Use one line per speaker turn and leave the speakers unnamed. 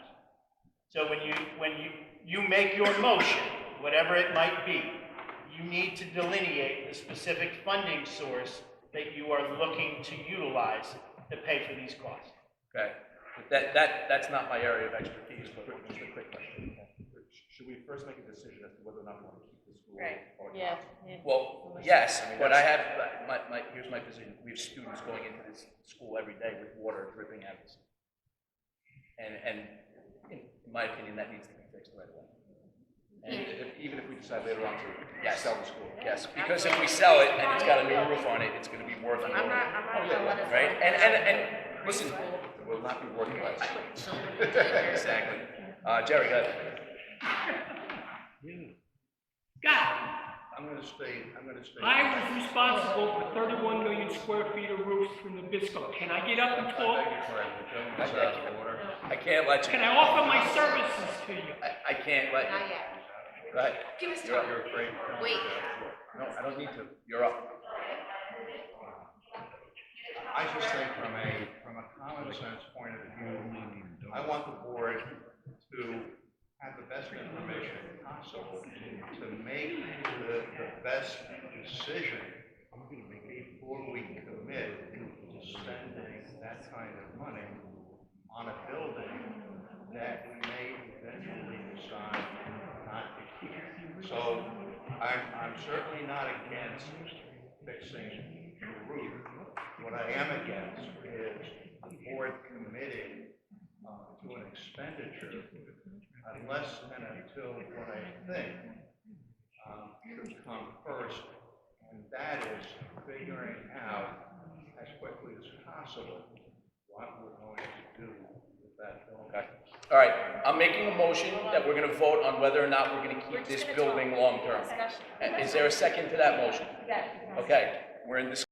So when you, when you, you make your motion, whatever it might be, you need to delineate the specific funding source that you are looking to utilize to pay for these costs.
Okay, But that, that, that's not my area of expertise, but just a quick question.
Should we first make a decision as to whether or not we want to keep the school?
Right,
or not?
yeah, yeah.
Well, yes, but I have, my, my, here's my position, we have students going into this school every day with water dripping out of us. And, and in my opinion, that needs to be fixed right away.
And if- even if we decide later on to
Yes.
sell the school?
Yes, because if we sell it and it's got a new roof on it, it's gonna be worth
I'm
more,
not, I'm not gonna let us.
right? And, and, and, listen,
It will not be working class.
exactly. Uh, Jerry, go ahead.
I'm gonna stay, I'm gonna stay.
I was responsible for thirty-one million square feet of roofs from Nabisco. Can I get up and
I
talk?
beg your pardon, the gentleman's out of order.
I can't let you,
Can I offer my services to you?
I, I can't let
Not
you,
yet.
go ahead,
Give us
You're up,
time.
You're a great.
Wait.
no, I don't need to, you're up.
I just think from a, from a common sense point of view, I want the board to have the best information possible to make the, the best decision before we commit to spending that kind of money on a building that we may eventually decide not to keep. So I'm, I'm certainly not against fixing the roof. What I am against is the board committing uh, to an expenditure unless and until what I think um, should come first, and that is figuring out as quickly as possible what we're going to do with that building.
Okay, all right, I'm making a motion that we're gonna vote on whether or not we're gonna
We're
keep
just
this
gonna talk.
building long-term.
Discussion.
Uh, Is there a second to that motion?
You got it.
Okay, we're in discussion.